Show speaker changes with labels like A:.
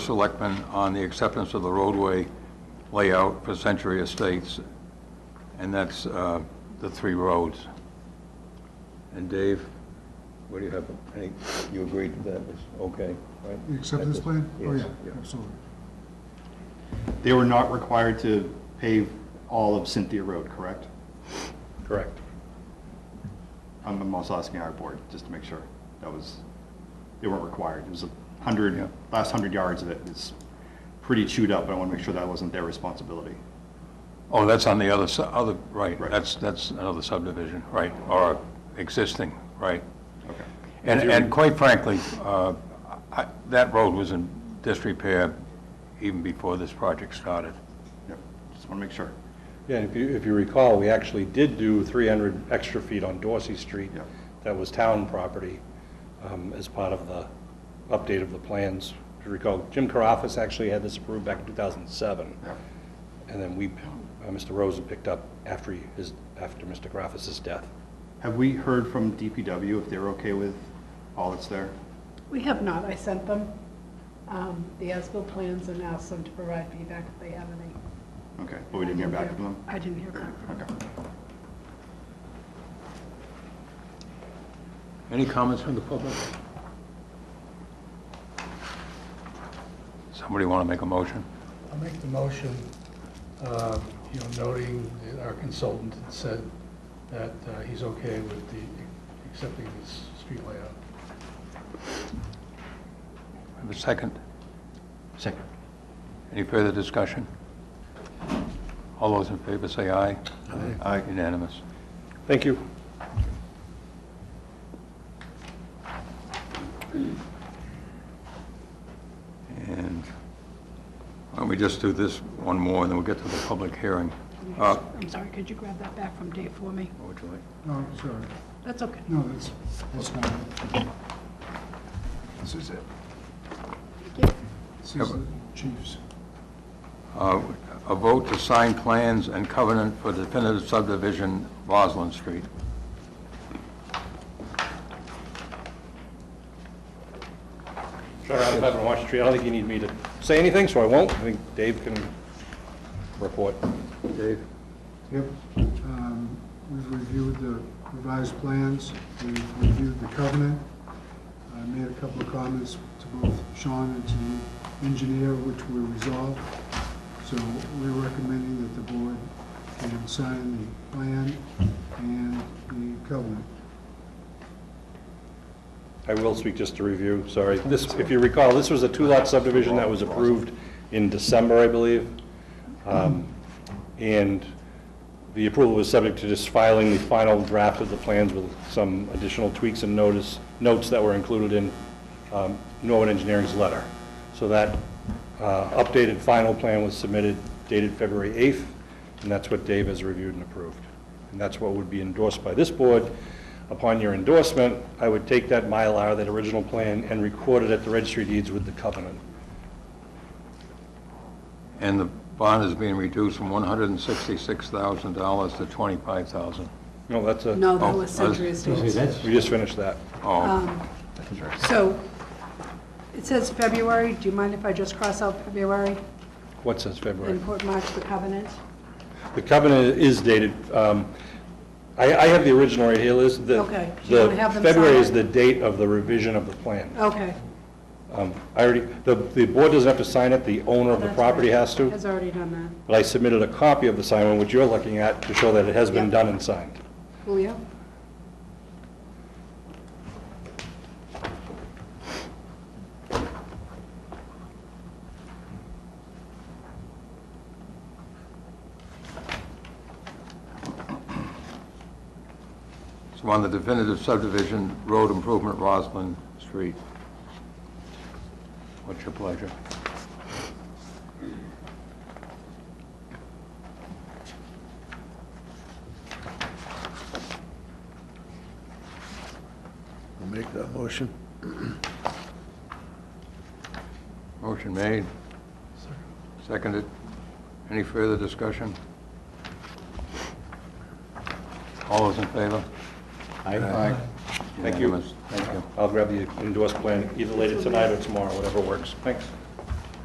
A: selectmen on the acceptance of the roadway layout for Century Estates, and that's uh, the three roads. And Dave, what do you have, any, you agreed that that was okay, right?
B: The acceptance plan? Oh,
A: Yes,
B: yeah,
A: yeah.
B: absolutely.
C: They were not required to pave all of Cynthia Road, correct?
A: Correct.
C: I'm I'm also asking our board, just to make sure. That was, they weren't required. It was a hundred, last hundred yards of it is pretty chewed up. I want to make sure that wasn't their responsibility.
A: Oh, that's on the other, si- other, right,
C: Right.
A: that's, that's another subdivision, right, or existing, right?
C: Okay.
A: And, and quite frankly, uh, I- that road was in disrepair even before this project started.
C: Yep. Just want to make sure.
D: Yeah, and if you, if you recall, we actually did do 300 extra feet on Dorsey Street.
C: Yeah.
D: That was town property um, as part of the update of the plans. If you recall, Jim Caroffus actually had this approved back in 2007.
C: Yep.
D: And then we, uh, Mr. Rosen picked up after he- his, after Mr. Caroffus's death.
C: Have we heard from DPW if they're okay with all that's there?
E: We have not. I sent them um, the as-built plans and asked them to provide feedback if they have any.
C: Okay, but we didn't hear back from them?
E: I didn't hear back from them.
C: Okay.
A: Any comments from the public? Somebody want to make a motion?
F: I'll make the motion, uh, you know, noting that our consultant had said that uh, he's okay with the, accepting this street layout.
A: Have a second?
C: Second.
A: Any further discussion? All those in favor say aye.
C: Aye.
A: Unanimous.
D: Thank you.
A: And why don't we just do this one more, and then we'll get to the public hearing. Uh,
E: I'm sorry, could you grab that back from Dave for me?
A: what would you like?
B: No, sorry.
E: That's okay.
B: No, that's, that's fine. This is it. This is the chief's.
A: Uh, A vote to sign plans and covenant for definitive subdivision Roslyn Street.
D: Sure, I'm having a watch tree. I don't think you need me to say anything, so I won't. I think Dave can report.
A: Dave?
B: Yep. Um, We've reviewed the revised plans, we've reviewed the covenant. I made a couple of comments to both Sean and to the engineer, which were resolved. So we're recommending that the board can sign the plan and the covenant.
D: I will speak just to review, sorry. This, if you recall, this was a two-lot subdivision that was approved in December, I believe. Um, And the approval was subject to just filing the final draft of the plans with some additional tweaks and notice, notes that were included in um, Norwood Engineering's letter. So that uh, updated final plan was submitted dated February 8th, and that's what Dave has reviewed and approved. And that's what would be endorsed by this board. Upon your endorsement, I would take that Mylar, that original plan, and record it at the registry of deeds with the covenant.
A: And the bond is being reduced from $166,000 to $25,000.
D: No, that's a,
E: No, that
A: Oh,
E: was
A: I was-
E: Century Estates.
D: we just finished that.
A: Oh,
E: So it says February. Do you mind if I just cross out February
D: What says February?
E: and put March the covenant?
D: The covenant is dated, um, I, I have the original right here, Liz. The-
E: Okay. Do you wanna
D: the
E: have them
D: February
E: sign Oh.
D: is
E: it?
D: the date of the revision of the plan.
E: Okay.
D: Um, I already, the, the board doesn't have to sign it, the owner of the
E: that's
D: property
E: right.
D: has to,
E: Has already done that.
D: but I submitted a copy of the signed one, which you're looking at, to show that it has been
E: Yep.
D: done and signed.
E: Julio?
A: so on the definitive subdivision, road improvement Roslyn Street. What's your pleasure?
G: I'll make that motion.
A: Motion made. Seconded. Any further discussion? All those in favor?
C: Aye.
D: Thank you.
A: Unanimous. Thank you.
D: I'll grab the endorsed plan either later tonight or tomorrow, whatever works. Thanks.